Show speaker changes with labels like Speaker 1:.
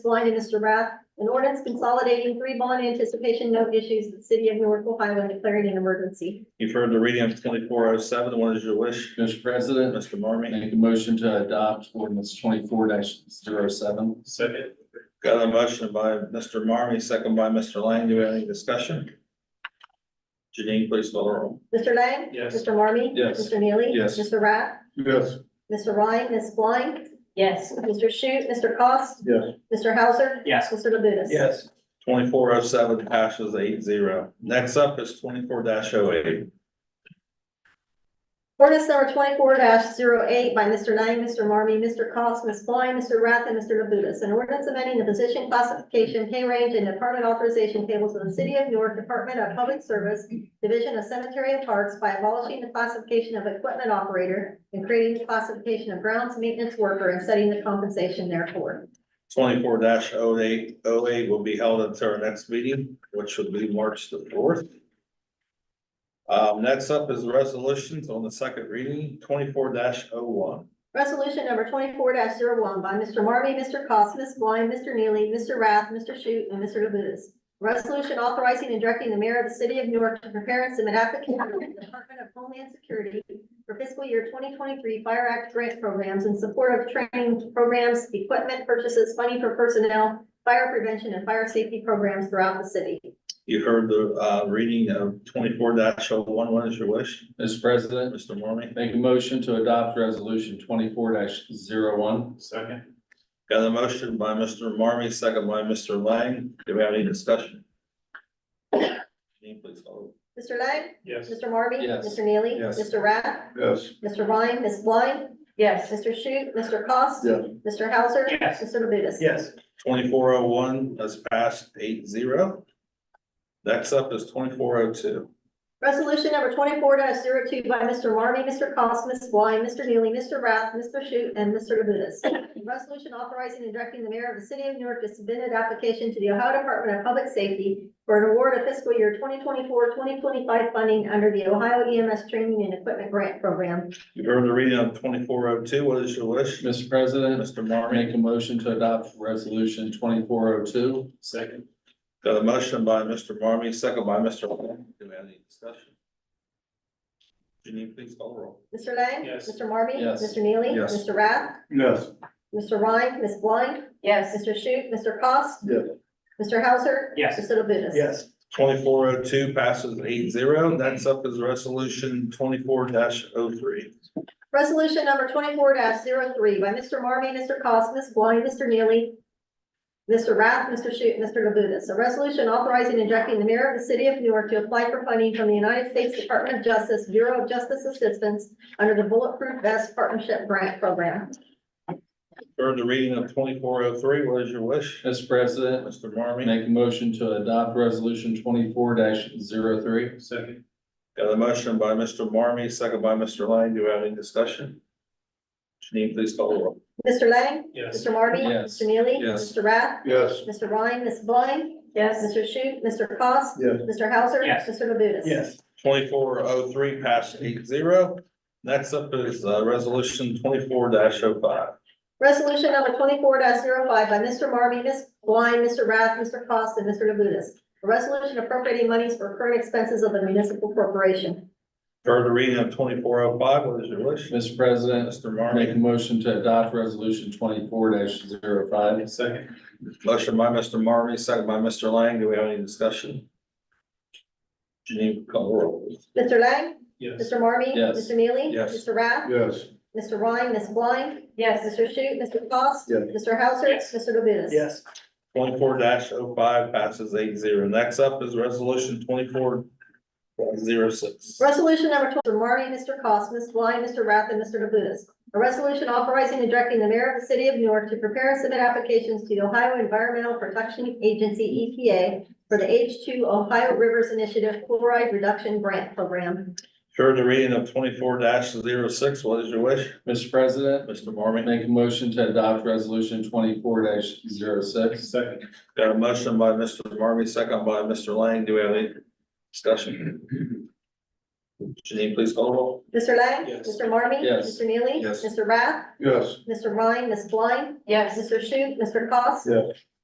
Speaker 1: Blind and Mr. Rath, an ordinance consolidating three bond anticipation note issues in the city of Newark, Ohio, and declaring an emergency.
Speaker 2: You've heard the reading of twenty-four oh seven. What is your wish,
Speaker 3: Mr. President,
Speaker 2: Mr. Marmy?
Speaker 3: make a motion to adopt ordinance twenty-four 7
Speaker 2: Second. Got a motion by Mr. Marmy, second by Mr. Lang. Do we have any discussion? Janine, please call the roll.
Speaker 1: Mr. Lang?
Speaker 2: Yes.
Speaker 1: Mr. Marmy?
Speaker 3: Yes.
Speaker 1: Mr. Neely?
Speaker 3: Yes.
Speaker 1: Mr. Rath?
Speaker 3: Yes.
Speaker 1: Mr. Ryan, Ms. Blind?
Speaker 4: Yes.
Speaker 1: Mr. Shute, Mr. Cost?
Speaker 3: Yes.
Speaker 1: Mr. Hauser?
Speaker 4: Yes.
Speaker 1: Mr. Labutus?
Speaker 2: Yes. Twenty-four oh seven passes eight zero. Next up is twenty-four oh 8
Speaker 1: Ordinance number twenty-four 8 by Mr. Lang, Mr. Marmy, Mr. Cost, Ms. Blind, Mr. Rath, and Mr. Labutus. An ordinance amending the position classification, pay range, and department authorization tables of the City of Newark Department of Public Service, Division of Cemetery and Parks by abolishing the classification of equipment operator and creating the classification of grounds maintenance worker and setting the compensation therefore.
Speaker 2: Twenty-four oh 8 08 will be held until our next meeting, which will be March the fourth. Um, next up is resolutions on the second reading, twenty-four oh one
Speaker 1: Resolution number twenty-four one by Mr. Marmy, Mr. Cost, Ms. Blind, Mr. Neely, Mr. Rath, Mr. Shute, and Mr. Labutus. Resolution authorizing and directing the mayor of the city of Newark to prepare and submit application to the Department of Homeland Security for fiscal year twenty twenty-three Fire Act grant programs in support of training programs, equipment purchases, funding for personnel, fire prevention, and fire safety programs throughout the city.
Speaker 2: You heard the, uh, reading of twenty-four dash oh one. What is your wish,
Speaker 3: Mr. President,
Speaker 2: Mr. Marmy?
Speaker 3: make a motion to adopt resolution twenty-four one
Speaker 2: Second. Got a motion by Mr. Marmy, second by Mr. Lang. Do we have any discussion? Janine, please call.
Speaker 1: Mr. Lang?
Speaker 2: Yes.
Speaker 1: Mr. Marmy?
Speaker 3: Yes.
Speaker 1: Mr. Neely?
Speaker 3: Yes.
Speaker 1: Mr. Rath?
Speaker 3: Yes.
Speaker 1: Mr. Ryan? Ms. Blind?
Speaker 4: Yes.
Speaker 1: Mr. Shute, Mr. Cost?
Speaker 3: Yes.
Speaker 1: Mr. Hauser?
Speaker 4: Yes.
Speaker 1: Mr. Labutus?
Speaker 2: Yes. Twenty-four oh one has passed eight zero. Next up is twenty-four oh two.
Speaker 1: Resolution number twenty-four 2 by Mr. Marmy, Mr. Cost, Ms. Blind, Mr. Neely, Mr. Rath, Mr. Shute, and Mr. Labutus. A Resolution authorizing and directing the mayor of the city of Newark to submit an application to the Ohio Department of Public Safety for an award of fiscal year 2024-2025 funding under the Ohio EMS Training and Equipment Grant Program.
Speaker 2: You've heard the reading of twenty-four oh two. What is your wish,
Speaker 3: Mr. President,
Speaker 2: Mr. Marmy?
Speaker 3: make a motion to adopt resolution twenty-four oh two. Second.
Speaker 2: Got a motion by Mr. Marmy, second by Mr. Lang. Do we have any discussion? Janine, please call the roll.
Speaker 1: Mr. Lang?
Speaker 2: Yes.
Speaker 1: Mr. Marmy?
Speaker 3: Yes.
Speaker 1: Mr. Neely?
Speaker 2: Yes.
Speaker 1: Mr. Rath?
Speaker 3: Yes.
Speaker 1: Mr. Ryan? Ms. Blind?
Speaker 4: Yes.
Speaker 1: Mr. Shute, Mr. Cost?
Speaker 3: Yes.
Speaker 1: Mr. Hauser?
Speaker 4: Yes.
Speaker 1: Mr. Labutus?
Speaker 2: Yes. Twenty-four oh two passes eight zero. Next up is resolution twenty-four dash oh three.
Speaker 1: Resolution number twenty-four 3 by Mr. Marmy, Mr. Cost, Ms. Blind, Mr. Neely, Mr. Rath, Mr. Shute, and Mr. Labutus. A resolution authorizing and directing the mayor of the city of Newark to apply for funding from the United States Department of Justice Bureau of Justice Assistance under the Bulletproof Vest Partnership Grant Program.
Speaker 2: Heard the reading of twenty-four oh three. What is your wish,
Speaker 3: Mr. President,
Speaker 2: Mr. Marmy?
Speaker 3: make a motion to adopt resolution twenty-four 3 Second.
Speaker 2: Got a motion by Mr. Marmy, second by Mr. Lang. Do we have any discussion? Janine, please call the roll.
Speaker 1: Mr. Lang?
Speaker 2: Yes.
Speaker 1: Mr. Marmy?
Speaker 3: Yes.
Speaker 1: Mr. Neely?
Speaker 3: Yes.
Speaker 1: Mr. Rath?
Speaker 3: Yes.
Speaker 1: Mr. Ryan, Ms. Blind?
Speaker 4: Yes.
Speaker 1: Mr. Shute, Mr. Cost?
Speaker 3: Yes.
Speaker 1: Mr. Hauser?
Speaker 4: Yes.
Speaker 1: Mr. Labutus?
Speaker 2: Twenty-four oh three passed eight zero. Next up is, uh, resolution twenty-four dash oh five.
Speaker 1: Resolution number twenty-four 5 by Mr. Marmy, Ms. Blind, Mr. Rath, Mr. Cost, and Mr. Labutus. A resolution appropriating monies for current expenses of the municipal corporation.
Speaker 2: Heard the reading of twenty-four oh five. What is your wish,
Speaker 3: Mr. President,
Speaker 2: Mr.
Speaker 3: make
Speaker 2: Marmy?
Speaker 3: a motion to adopt resolution twenty-four 5
Speaker 2: Second. Motion by Mr. Marmy, second by Mr. Lang. Do we have any discussion? Janine, call the roll. please.
Speaker 1: Mr. Lang?
Speaker 2: Yes.
Speaker 1: Mr. Marmy?
Speaker 3: Yes.
Speaker 1: Mr. Neely?
Speaker 2: Yes.
Speaker 1: Mr. Rath?
Speaker 3: Yes.
Speaker 1: Mr. Ryan, Ms. Blind?
Speaker 4: Yes.
Speaker 1: Mr. Shute, Mr. Cost?
Speaker 3: Yes.
Speaker 1: Mr. Hauser?
Speaker 4: Yes.
Speaker 1: Mr. Labutus?
Speaker 2: Twenty-four 5 passes eight zero. Next up is resolution twenty-four zero six.
Speaker 1: Resolution number twenty, Mr. Marmy, Mr. Cost, Ms. Blind, Mr. Rath, and Mr. Labutus. A resolution authorizing and directing the mayor of the city of Newark to prepare and submit applications to the Ohio Environmental Protection Agency, EPA, for the H two Ohio Rivers Initiative Chloride Reduction Grant Program.
Speaker 2: Heard the reading of twenty-four 6 What is your wish,
Speaker 3: Mr. President,
Speaker 2: Mr. Marmy?
Speaker 3: make a motion to adopt resolution twenty-four 6
Speaker 2: Second. Got a motion by Mr. Marmy, second by Mr. Lang. Do we have any discussion? Janine, please call the roll.
Speaker 1: Mr. Lang?
Speaker 3: Yes.
Speaker 1: Mr. Marmy?
Speaker 3: Yes.
Speaker 1: Mr. Neely?
Speaker 2: Yes.
Speaker 1: Mr. Rath?
Speaker 3: Yes.
Speaker 1: Mr. Ryan, Ms. Blind?
Speaker 4: yes.
Speaker 1: Mr. Shu, Mr. Cost?